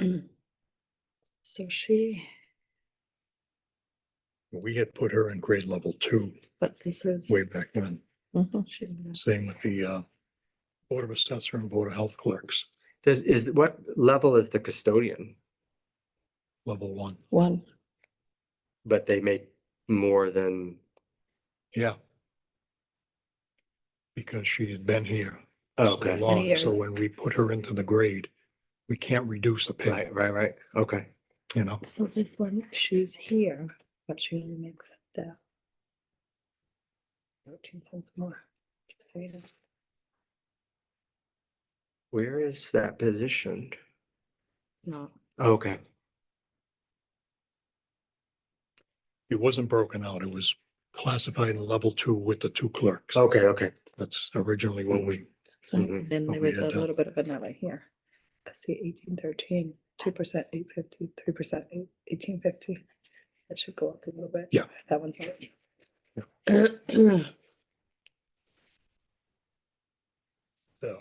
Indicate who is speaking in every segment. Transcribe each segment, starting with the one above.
Speaker 1: So she,
Speaker 2: We had put her in grade level two
Speaker 1: but this is.
Speaker 2: way back when,
Speaker 3: Mhm.
Speaker 1: she was-
Speaker 2: same with the uh, Board of Assessor and Board of Health Clerks,
Speaker 4: Does, is, what level is the custodian?
Speaker 2: level one.
Speaker 3: One,
Speaker 4: But they make more than,
Speaker 2: Yeah. Because she had been here so
Speaker 4: okay,
Speaker 2: long. So
Speaker 1: years.
Speaker 2: when we put her into the grade, we can't reduce a pay,
Speaker 4: right, right, right, okay.
Speaker 2: you know?
Speaker 1: So this one, she's here, but she only makes the. Thirteen cents more. Just so you know.
Speaker 4: Where is that positioned?
Speaker 1: No,
Speaker 4: Okay,
Speaker 2: It wasn't broken out. It was classified in level two with the two clerks.
Speaker 4: okay, okay.
Speaker 2: That's originally what we,
Speaker 1: so
Speaker 4: Mhm.
Speaker 1: then
Speaker 2: But
Speaker 1: there
Speaker 2: we
Speaker 1: was
Speaker 2: had
Speaker 1: a
Speaker 2: that.
Speaker 1: little bit of vanilla here. I see eighteen thirteen, two percent eight fifty, three percent eighteen fifty. That should go up a little bit.
Speaker 2: Yeah.
Speaker 1: That one's. up.
Speaker 2: so.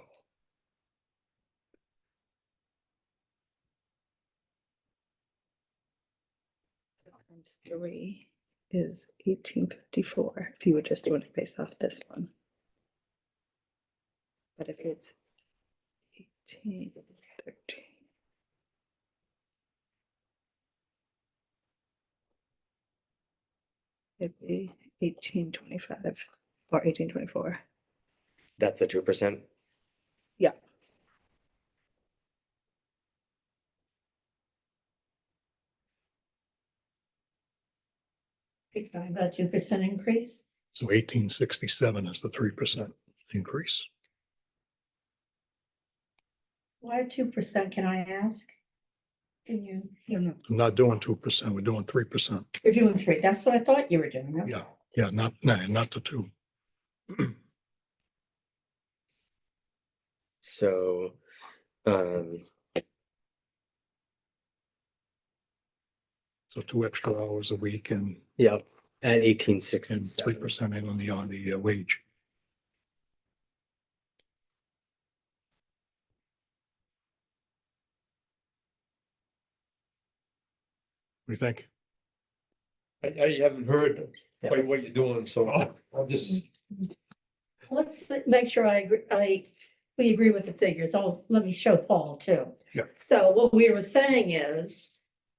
Speaker 1: Times three is eighteen fifty-four, if you were just doing it based off this one. But if it's eighteen thirteen. It'd be eighteen twenty-five or eighteen twenty-four.
Speaker 4: That's the two percent?
Speaker 1: Yeah.
Speaker 5: You're talking about two percent increase?
Speaker 2: So eighteen sixty-seven is the three percent increase.
Speaker 5: Why two percent, can I ask? Can you, you know,
Speaker 2: I'm not doing two percent, we're doing three percent.
Speaker 5: you're doing three, that's what I thought you were doing. okay.
Speaker 2: Yeah, yeah, not, no, not the two.
Speaker 4: So, um,
Speaker 2: So two extra hours a week and,
Speaker 4: yeah, at eighteen
Speaker 2: and three
Speaker 4: sixty-seven.
Speaker 2: percent in on the, on the uh, wage. We think,
Speaker 6: I, I haven't heard
Speaker 4: Yeah.
Speaker 6: quite what you're doing, so I'm just,
Speaker 5: Let's make sure I, agree- I, we agree with the figures. Oh, let me show Paul too.
Speaker 2: Yeah.
Speaker 5: So what we were saying is,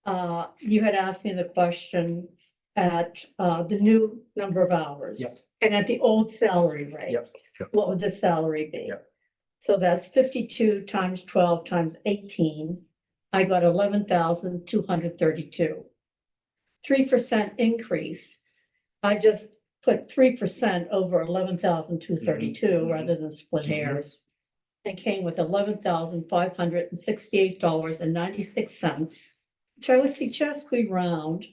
Speaker 5: uh, you had asked me the question at, uh, the new number of hours.
Speaker 4: Yep.
Speaker 5: And at the old salary rate.
Speaker 4: Yep.
Speaker 2: Yep.
Speaker 5: What would the salary be?
Speaker 4: Yep.
Speaker 5: So that's fifty-two times twelve times eighteen. I got eleven thousand two hundred thirty-two. Three percent increase. I just put three percent over eleven thousand two thirty-two
Speaker 4: mhm.
Speaker 5: rather than split
Speaker 4: Mhm.
Speaker 5: hairs. And came with eleven thousand five hundred and sixty-eight dollars and ninety-six cents, which I would suggest we round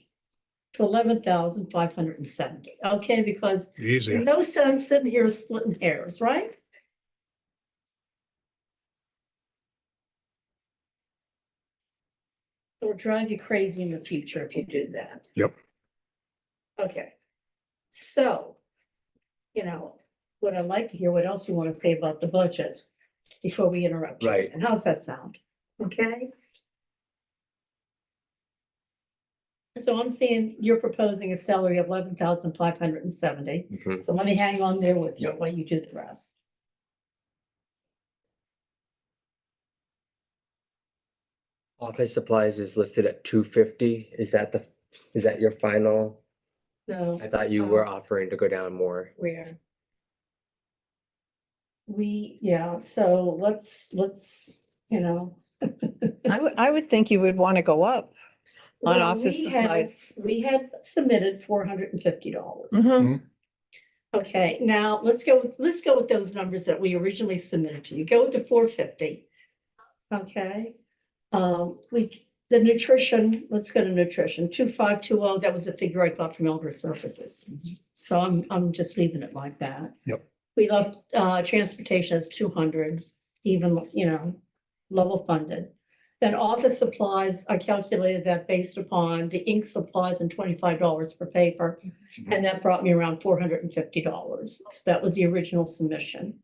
Speaker 5: to eleven thousand five hundred and seventy, okay? Because
Speaker 2: easy,
Speaker 5: there's no sense sitting here splitting hairs, right? It'll drive you crazy in the future if you do that.
Speaker 2: Yep.
Speaker 5: Okay, so, you know, what I'd like to hear, what else you want to say about the budget before we interrupt? you.
Speaker 4: Right.
Speaker 5: And how's that sound? Okay? So I'm seeing you're proposing a salary of eleven thousand five hundred and seventy.
Speaker 4: Mhm.
Speaker 5: So let me hang on there with you
Speaker 4: Yep.
Speaker 5: while you do the rest.
Speaker 4: Office supplies is listed at two fifty. Is that the, is that your final?
Speaker 5: So
Speaker 4: I thought you were offering to go down more.
Speaker 1: Where?
Speaker 5: we, yeah, so let's, let's, you know.
Speaker 3: I would, I would think you would want to go up. On
Speaker 5: Well,
Speaker 3: office
Speaker 5: we have-
Speaker 3: supplies.
Speaker 5: We had submitted four hundred and fifty dollars.
Speaker 3: Mhm.
Speaker 5: Okay, now let's go, with- let's go with those numbers that we originally submitted to you. Go with the four fifty. Okay, um, we, the nutrition, let's go to nutrition, two five two oh, that was a figure I got from Elder Services. So I'm, I'm just leaving it like that.
Speaker 2: Yep.
Speaker 5: We left, uh, transportation as two hundred, even, you know, level funded. Then office supplies, I calculated that based upon the ink supplies and twenty-five dollars per paper. And that brought me around four hundred and fifty dollars. That was the original submission.